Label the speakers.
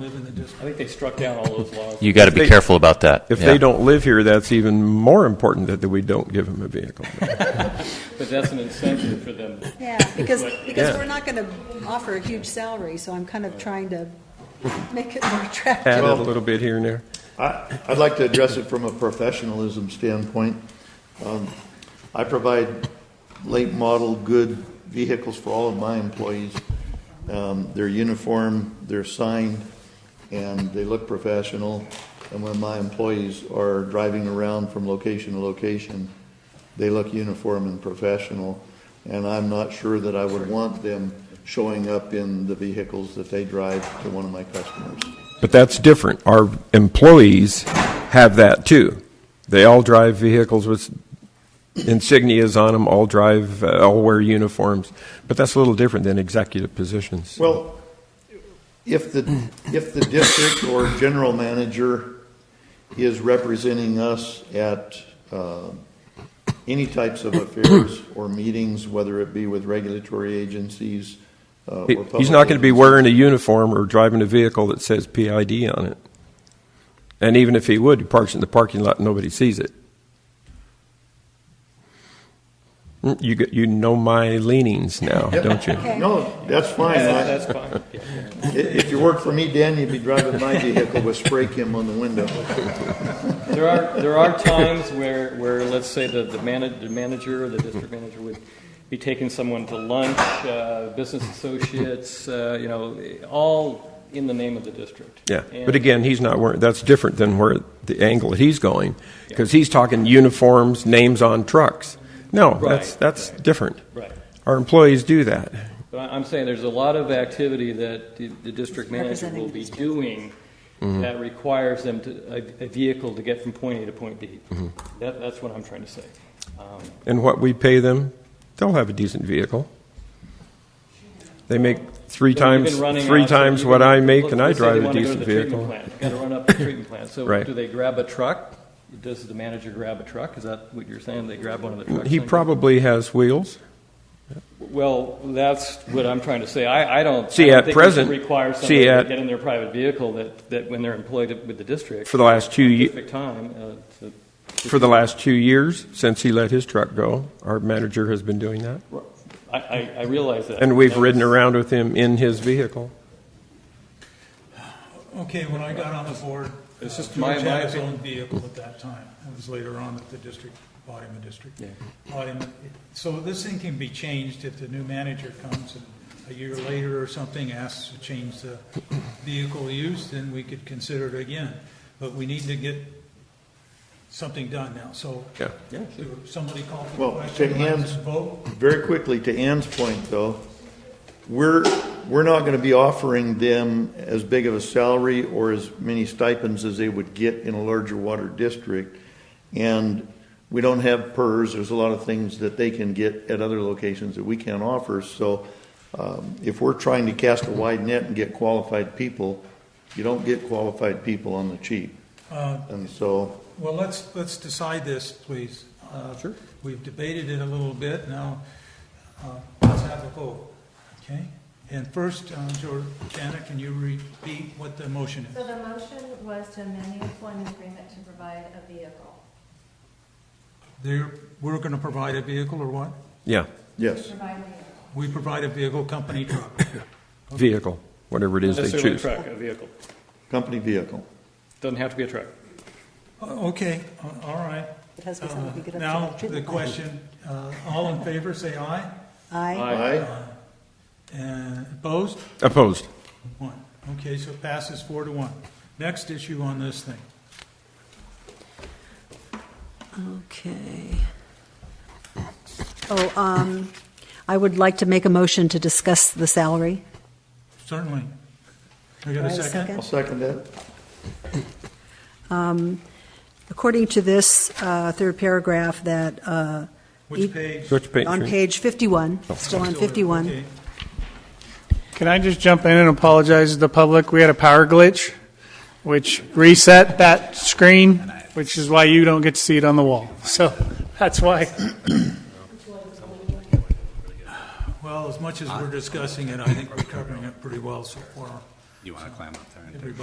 Speaker 1: live in the district.
Speaker 2: I think they struck down all those laws.
Speaker 3: You got to
Speaker 4: If
Speaker 3: be
Speaker 4: they-
Speaker 3: careful about that.
Speaker 4: If
Speaker 3: Yeah.
Speaker 4: they don't live here, that's even more important that that we don't give them a vehicle.
Speaker 2: But that's an incentive for them.
Speaker 5: Yeah, because, because
Speaker 4: Yeah.
Speaker 5: we're not going to offer a huge salary, so I'm kind of trying to make it more attractive.
Speaker 4: Add it a
Speaker 6: Well-
Speaker 4: little bit here and there.
Speaker 6: I- I'd like to address it from a professionalism standpoint. Um, I provide late model good vehicles for all of my employees. Um, They're uniform, they're signed, and they look professional. And when my employees are driving around from location to location, they look uniform and professional. And I'm not sure that I would want them showing up in the vehicles that they drive to one of my customers.
Speaker 4: But that's different. Our employees have that too. They all drive vehicles with insignias on them, all drive, uh, all wear uniforms. But that's a little different than executive positions.
Speaker 6: Well, if the, if the district or general manager is representing us at uh, any types of affairs or meetings, whether it be with regulatory agencies uh, or
Speaker 4: He-
Speaker 6: public.
Speaker 4: He's not going to be
Speaker 6: agencies-
Speaker 4: wearing a uniform or driving a vehicle that says PID on it. And even if he would, he parks in the parking lot and nobody sees it. Mm, You, get- you know my leanings now, don't you?
Speaker 5: Okay.
Speaker 6: No, that's fine.
Speaker 2: Yeah,
Speaker 6: I-
Speaker 2: That's fine. Yeah.
Speaker 6: i- If you worked for me, Dan, you'd be driving my vehicle with spray cam on the window.
Speaker 2: There are, there are times where, where, let's say, the, the mana- the manager or the district manager would be taking someone to lunch, uh, business associates, uh, you know, all in the name of the district.
Speaker 4: Yeah, but
Speaker 2: And-
Speaker 4: again, he's not wearing, that's different than where the angle that he's going, because he's talking uniforms, names on trucks. No, that's,
Speaker 2: Right,
Speaker 4: that's different.
Speaker 2: Right.
Speaker 4: Our employees do that.
Speaker 2: But I- I'm saying there's a lot of activity that the the district manager will be doing that requires them to, a a vehicle to get from point A to point B. That, that's what I'm trying to say. Um,
Speaker 4: And what we pay them, they'll have a decent vehicle. They make three
Speaker 2: you know, you've
Speaker 4: times,
Speaker 2: been running
Speaker 4: three
Speaker 2: out, so
Speaker 4: times
Speaker 2: you've
Speaker 4: what
Speaker 2: been-
Speaker 4: I make
Speaker 2: let's-
Speaker 4: and I
Speaker 2: let's say they
Speaker 4: drive a
Speaker 2: wanna go to
Speaker 4: decent
Speaker 2: the treatment
Speaker 4: vehicle.
Speaker 2: plant. Gotta run up the treatment plant. So
Speaker 4: Right.
Speaker 2: do they grab a truck? Does the manager grab a truck? Is that what you're saying? They grab one of the trucks?
Speaker 4: He
Speaker 2: and-
Speaker 4: probably has wheels.
Speaker 2: Well, that's what I'm trying to say. I, I don't.
Speaker 4: See,
Speaker 2: I don't
Speaker 4: at
Speaker 2: think we should
Speaker 4: present-
Speaker 2: Require
Speaker 4: see,
Speaker 2: somebody to
Speaker 4: at-
Speaker 2: get in their private vehicle that, that when they're employed with the district.
Speaker 4: For the last two ye-
Speaker 2: Specific time, uh, to-
Speaker 4: For the last two years, since he let his truck go, our manager has been doing that.
Speaker 2: I, I, I realize that.
Speaker 4: And we've
Speaker 2: That
Speaker 4: ridden
Speaker 2: was-
Speaker 4: around with him in his vehicle.
Speaker 1: Okay, when I got on the board, uh,
Speaker 2: It's just
Speaker 1: George
Speaker 2: my- my
Speaker 1: had his
Speaker 2: opinion.
Speaker 1: own vehicle at that time. It was later on that the district bought him a district. Bought him, so this thing can be changed if the new manager comes and a year later or something asks to change the vehicle use, then we could consider it again. But we need to get something done now, so.
Speaker 4: Yeah.
Speaker 1: Do Somebody call for
Speaker 6: Well,
Speaker 1: the question,
Speaker 6: take
Speaker 1: let's
Speaker 6: hands.
Speaker 1: vote.
Speaker 6: Very quickly, to Ann's point, though, we're, we're not going to be offering them as big of a salary or as many stipends as they would get in a larger water district. And we don't have PERS, there's a lot of things that they can get at other locations that we can't offer. So um, if we're trying to cast a wide net and get qualified people, you don't get qualified people on the cheap. And so,
Speaker 1: Well, let's, let's decide this, please. Uh,
Speaker 4: Sure.
Speaker 1: We've debated it a little bit, now, uh, let's have a vote, okay? And first, um, Jor- Janet, can you repeat what the motion is?
Speaker 7: So the motion was to amend the employment agreement to provide a vehicle,
Speaker 1: There, we're gonna provide a vehicle, or what?
Speaker 4: Yeah,
Speaker 6: yes.
Speaker 7: provide a vehicle.
Speaker 1: We provide a vehicle, company truck.
Speaker 4: vehicle, whatever it is they
Speaker 2: Necessarily a
Speaker 4: choose.
Speaker 2: truck, a vehicle.
Speaker 6: Company vehicle.
Speaker 2: Doesn't have to be a truck.
Speaker 1: O- Uh, Okay, a- all right.
Speaker 5: It has to be
Speaker 1: Uh,
Speaker 5: something we get up to.
Speaker 1: Now, the
Speaker 5: treatment plant.
Speaker 1: question, uh, all in favor, say aye,
Speaker 5: Aye.
Speaker 6: Aye?
Speaker 1: and opposed?
Speaker 4: Opposed.
Speaker 1: One. Okay, so it passes four to one. Next issue on this thing.
Speaker 5: Okay. Oh, um, I would like to make a motion to discuss the salary.
Speaker 1: Certainly. We got
Speaker 5: Do I
Speaker 1: a
Speaker 5: have a
Speaker 1: second?
Speaker 5: second?
Speaker 6: I'll second that.
Speaker 5: According to this uh, third paragraph that, uh,
Speaker 1: Which page?
Speaker 4: Switch page.
Speaker 5: on page 51, still on 51.
Speaker 1: Okay.
Speaker 8: Can I just jump in and apologize to the public? We had a power glitch, which reset that screen, which is why you don't get to see it on the wall. So that's why.
Speaker 1: Well, as much as we're discussing it, I think we're covering it pretty well so far.
Speaker 3: You want to climb up there and
Speaker 1: everybody